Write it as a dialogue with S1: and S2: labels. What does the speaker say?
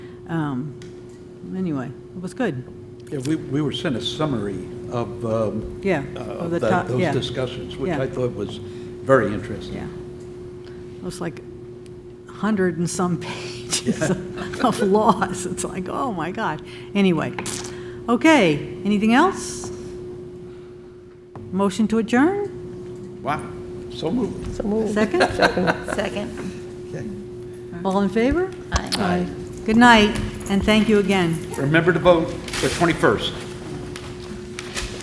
S1: Um, Anyway, it was good.
S2: Yeah, we, we were sent a summary of, um,
S1: Yeah,
S2: uh,
S1: of
S2: of
S1: the
S2: that-
S1: top- yeah.
S2: those discussions, which
S1: Yeah.
S2: I thought was very interesting.
S1: Yeah. It was like a hundred and some pages of laws. It's like, oh my gosh. Anyway, okay, anything else? Motion to adjourn?
S2: Wow, so moved.
S3: So moved.
S1: Second?
S4: Second.
S2: Okay.
S1: All in favor?
S4: Aye.
S1: Good night, and thank you again.
S2: Remember to vote the 21st.